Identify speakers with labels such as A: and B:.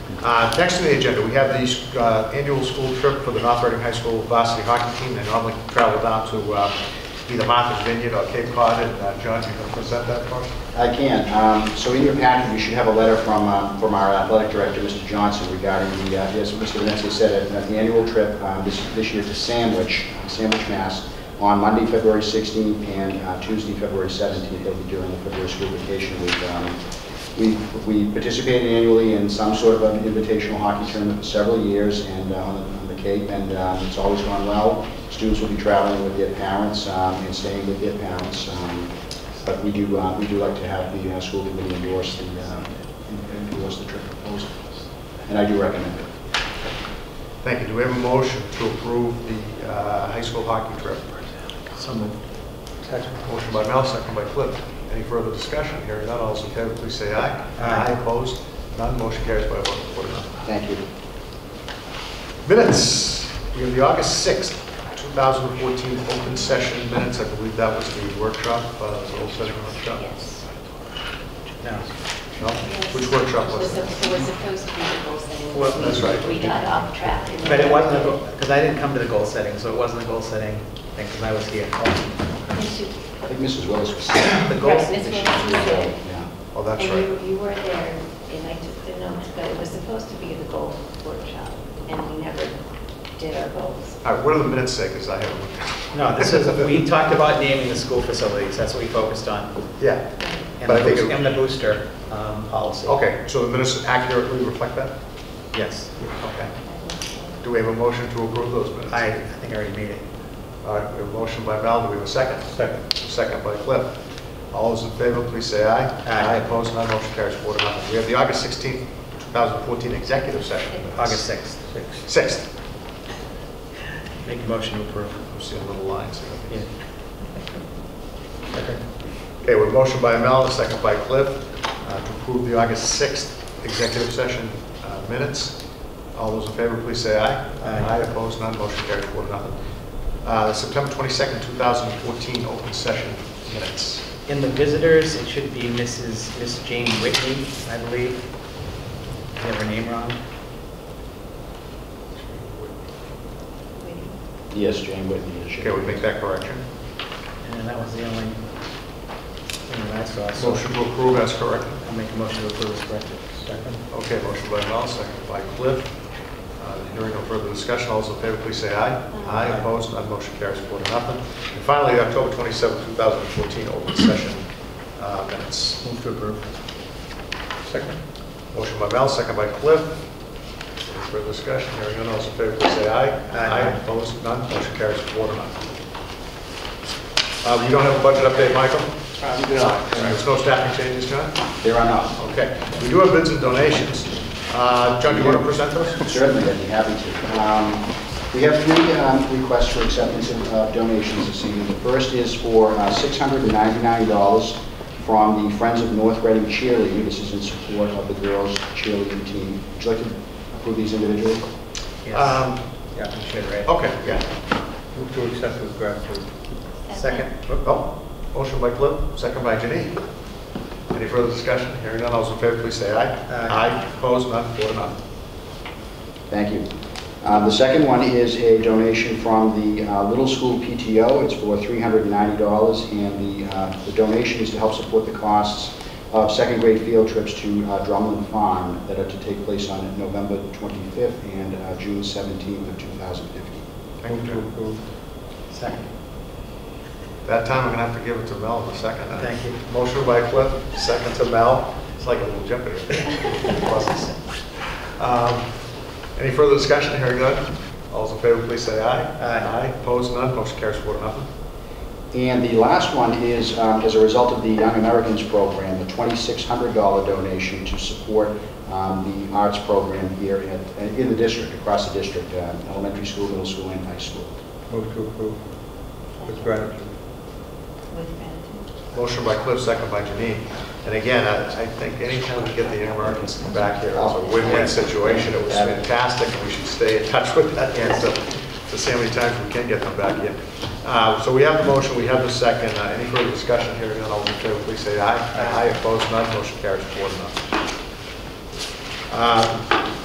A: Uh, Next on the agenda, we have the uh, annual school trip for the North Reading High School varsity hockey team. They normally travel down to uh, either Martha's Vineyard or Cape Cod, and uh, John, you can present that for us?
B: I can. Um, So in your packet, you should have a letter from, uh, from our athletic director, Mr. Johnson, regarding the, uh, yes, Mr. Vinetti said it, uh, the annual trip um, this this year to Sandwich, Sandwich, Mass, on Monday, February 16th, and uh, Tuesday, February 17th. They'll be doing it for their school vacation week. Um, We we participated annually in some sort of an invitational hockey tournament for several years, and uh, on on the Cape, and um, it's always gone well. Students will be traveling with their parents um, and staying with their parents. um, but we do, uh, we do like to have the uh, school committee endorse the, uh, endorse the trip proposal. And I do recommend it.
A: Thank you. Do we have a motion to approve the uh, high school hockey trip?
C: So moved.
A: Motion by Mel, second by Cliff. Any further discussion? Hearing none, all those in favor, please say aye.
C: Aye.
A: Opposed? None, motion carries by a vote of four to none.
B: Thank you.
A: Minutes, we have the August 6th, 2014 open session minutes. I believe that was the workshop, uh, the old session workshop.
D: Yes.
C: No.
A: No? Which workshop
D: It
A: was
D: was
A: it?
D: sup- it was supposed to be the goal setting.
C: Well,
A: that's right.
D: We got off track. and-
C: But it wasn't, because I didn't come to the goal setting, so it wasn't a goal setting thing, because I was here.
D: We should-
B: I think Mrs. Willis was. uh,
C: The goal,
D: Right, Ms. Wilson was there.
B: Yeah.
A: Oh, that's
D: And
A: right.
D: you, you were there, and I took the notes, but it was supposed to be the goal workshop, and we never did our goals.
A: All right, what do the minutes say, because I haven't looked at
C: no, this is, we talked about naming the school facilities, that's what we focused on.
A: it. Yeah,
C: And
A: But I
C: the
A: think
C: boos-
A: it-
C: and the booster um, policy.
A: okay, so the minutes accurately reflect that?
C: Yes.
A: Okay. Do we have a motion to approve those minutes?
C: I, I think I already made it.
A: All right, we have a motion by Mel, do we have a second? Second. Second by Cliff. All those in favor, please say aye.
C: Aye.
A: Opposed, none, motion carries four to nothing. We have the August 16th, 2014 executive session. minutes.
C: August 6th.
A: 6th.
C: Make a motion to approve.
A: I'm seeing little lines
C: Yeah.
A: here. Okay, we have a motion by Mel, a second by Cliff, uh, to approve the August 6th executive session uh, minutes. All those in favor, please say aye.
C: Aye.
A: Opposed, none, motion carries four to nothing. Uh, September 22nd, 2014 open session minutes.
C: In the visitors, it should be Mrs., Miss Jane Whitney, I believe. Did I have her name wrong?
D: We-
B: Yes, Jane Whitney. she-
A: Okay, we make that correction.
C: And that was the only thing that I saw. so-
A: Motion to approve as corrected.
C: I'll make a motion to approve as corrected. Second?
A: Okay, motion by Mel, second by Cliff. Uh, Hearing no further discussion, all those in favor, please say aye.
D: Aye.
A: Opposed, none, motion carries four to nothing. And finally, October 27, 2014, open session uh, minutes.
C: Move to approve.
A: Second. Motion by Mel, second by Cliff. Any further discussion? Hearing none, all those in favor, please say aye.
C: Aye.
A: Opposed, none, motion carries four to nothing. Uh, You don't have a budget update, Michael?
B: Um, good luck.
A: There's no staffing changes, John?
B: There are none.
A: Okay, we do have bids and donations. Uh, John, do you want to present those?
B: Certainly, I'd be happy to. Um, We have three um, requests for acceptance of uh, donations this evening. The first is for uh, $699 from the Friends of North Reading Cheerleading. This is in support of the girls cheerleading team. Would you like to approve these individually?
C: Yes.
A: Um,
C: Yeah, we should, right?
A: Okay, yeah.
C: Move to accept with gratitude. Second?
A: Oh, motion by Cliff, second by Janine. Any further discussion? Hearing none, all those in favor, please say aye.
C: Aye.
A: Opposed, none, four to none.
B: Thank you. Uh, The second one is a donation from the uh, Little School PTO. It's for $390, and the uh, the donation is to help support the costs of second-grade field trips to uh, Drummond Farm that are to take place on November 25th and uh, June 17th of 2015.
A: Thank you, John.
C: Second.
A: That time, I'm going to have to give it to Mel in a second. huh?
C: Thank you.
A: Motion by Cliff, second to Mel. It's like a little jeopardy. Pluses. Um, Any further discussion? Hearing none, all those in favor, please say aye.
C: Aye.
A: Opposed, none, motion carries four to nothing.
B: And the last one is, um, as a result of the Young Americans Program, the $2,600 donation to support um, the arts program here at- in the district, across the district, uh, elementary school, middle school, and high school.
E: Move to approve with gratitude.
D: With gratitude.
A: Motion by Cliff, second by Janine. And again, I I think anytime we get the Young Americans to come back here, it's a win-win situation. It was fantastic, and we should stay in touch with that, and so, to see how many times we can get them back here. Uh, So we have the motion, we have the second. Uh, Any further discussion here? None, all in favor, please say aye. Aye. Opposed, none, motion carries four to none. Uh,